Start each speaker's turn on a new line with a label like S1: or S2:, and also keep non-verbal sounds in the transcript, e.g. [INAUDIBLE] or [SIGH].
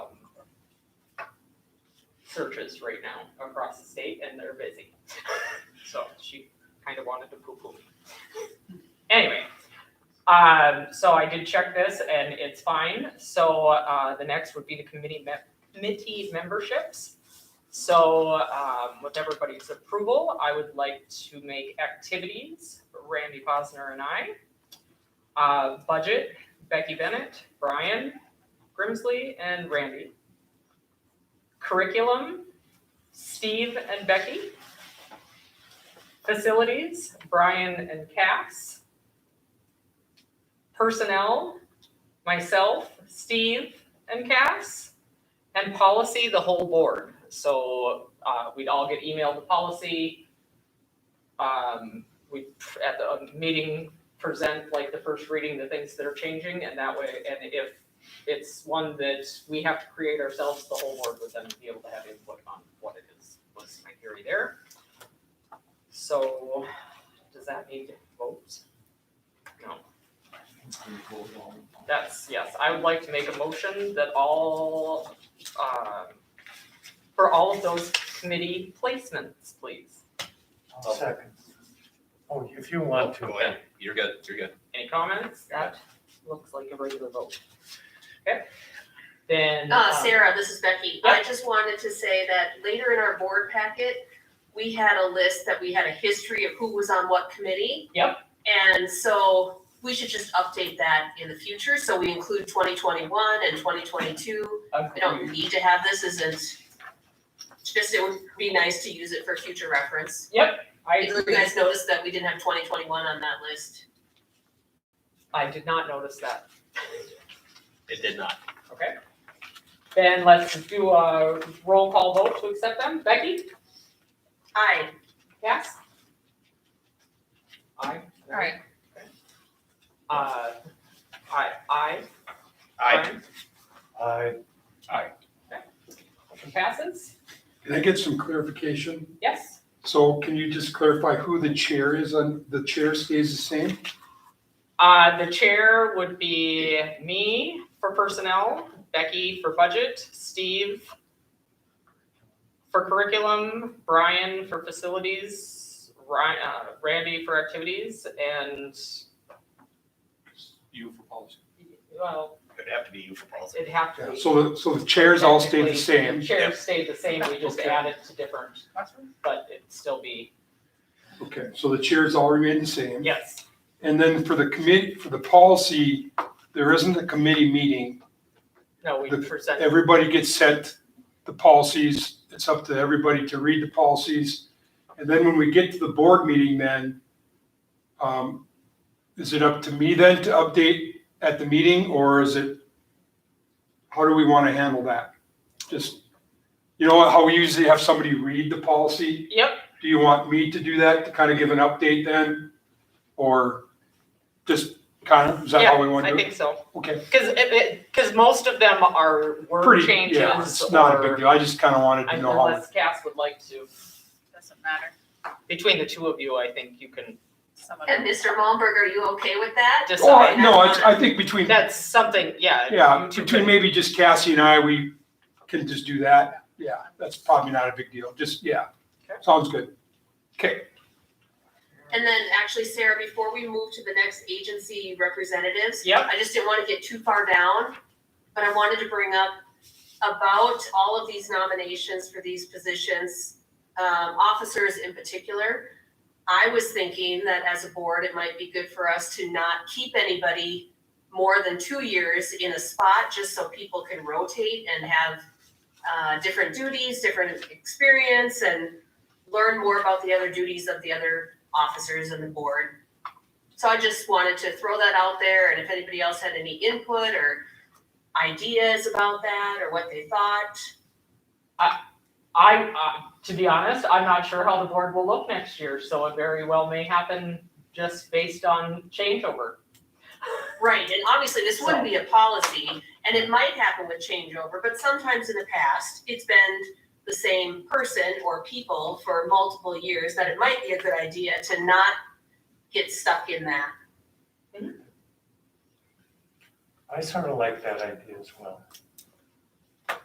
S1: churches right now across the state and they're busy. [LAUGHS] So she kind of wanted to poo-poo me. Anyway, um, so I did check this and it's fine. So, uh, the next would be the committee me- committee memberships. So, um, with everybody's approval, I would like to make activities, Randy Posner and I. Uh, budget, Becky Bennett, Brian Grimsley and Randy. Curriculum, Steve and Becky. Facilities, Brian and Cass. Personnel, myself, Steve and Cass. And policy, the whole board. So uh, we'd all get emailed the policy. Um, We, at the meeting, present like the first reading, the things that are changing, and that way, and if it's one that we have to create ourselves, the whole board would then be able to have input on what it is, was my theory there. So, does that need votes? No, that's, yes, I would like to make a motion that all, um, for all of those committee placements, please.
S2: I'll second. Oh, if you want to.
S3: Go ahead, you're good, you're good.
S1: Any comments? That looks like a regular vote. Okay, then.
S4: Uh,
S1: um,
S4: Sarah, this is Becky. I just wanted to say that later in our board packet, we had a list that we had a history of who was on what committee.
S1: Yep.
S4: And so we should just update that in the future, so we include twenty twenty-one and twenty twenty-two. We don't
S1: agreed.
S4: need to have this, isn't, just it would be nice to use it for future reference.
S1: I
S4: You
S1: agree.
S4: guys noticed that we didn't have twenty twenty-one on that list.
S1: I did not notice that.
S3: It did not.
S1: Okay. Then let's do a roll call vote to accept them. Becky?
S4: Aye.
S1: Yes? Aye.
S4: Aye.
S1: Uh, aye, aye.
S3: I,
S2: I,
S1: Motion passes.
S5: Can I get some clarification?
S1: Yes?
S5: So can you just clarify who the chair is on, the chair stays the same?
S1: Uh, the chair would be me for personnel, Becky for budget, Steve for curriculum, Brian for facilities, Ryan, uh, Randy for activities, and,
S5: You for policy.
S1: well,
S3: it'd have to be you for policy.
S1: it'd have to be.
S5: So, the- so the chairs all stay the
S1: Technically,
S5: same?
S1: Chairs stayed the same, we just
S5: Okay.
S1: added to different, but it'd still be,
S5: Okay, so the chairs all remain the same?
S1: yes,
S5: And then for the committee, for the policy, there isn't a committee meeting.
S1: no, we
S5: The-
S1: presented,
S5: Everybody gets set the policies. It's up to everybody to read the policies. And then when we get to the board meeting then, um, is it up to me then to update at the meeting or is it? How do we want to handle that? Just, you know how we usually have somebody read the policy?
S1: yep,
S5: Do you want me to do that, to kind of give an update then? Or just kind of, is that how we want to
S1: I
S5: do it?
S1: think so.
S5: Okay,
S1: Cause it- it, cause most of them are word
S5: pretty,
S1: changes
S5: yeah, it's not a big
S1: or-
S5: deal. I just kind of wanted to know how.
S1: Unless Cass would like to,
S6: Doesn't matter.
S1: between the two of you, I think you can
S6: Someone
S4: And Mr. Malmberg, are you okay with that?
S5: Oh,
S1: decide.
S5: I- no, it's, I think between,
S1: That's something, yeah.
S5: yeah,
S1: you two
S5: between
S1: could-
S5: maybe just Cassie and I, we can just do that. Yeah, that's probably not a big deal. Just, yeah,
S1: Okay.
S5: sounds good. Okay,
S4: And then actually, Sarah, before we move to the next agency representatives.
S1: Yep.
S4: I just didn't want to get too far down, but I wanted to bring up about all of these nominations for these positions, um, officers in particular. I was thinking that as a board, it might be good for us to not keep anybody more than two years in a spot, just so people can rotate and have uh, different duties, different experience, and learn more about the other duties of the other officers and the board. So I just wanted to throw that out there, and if anybody else had any input or ideas about that, or what they thought.
S1: I, uh, to be honest, I'm not sure how the board will look next year, so it very well may happen just based on changeover.
S4: Right, and obviously, this wouldn't be a policy, and it might happen with changeover, but sometimes in the past, it's been the same person or people for multiple years, that it might be a good idea to not get stuck in that.
S2: I sort of like that idea as well.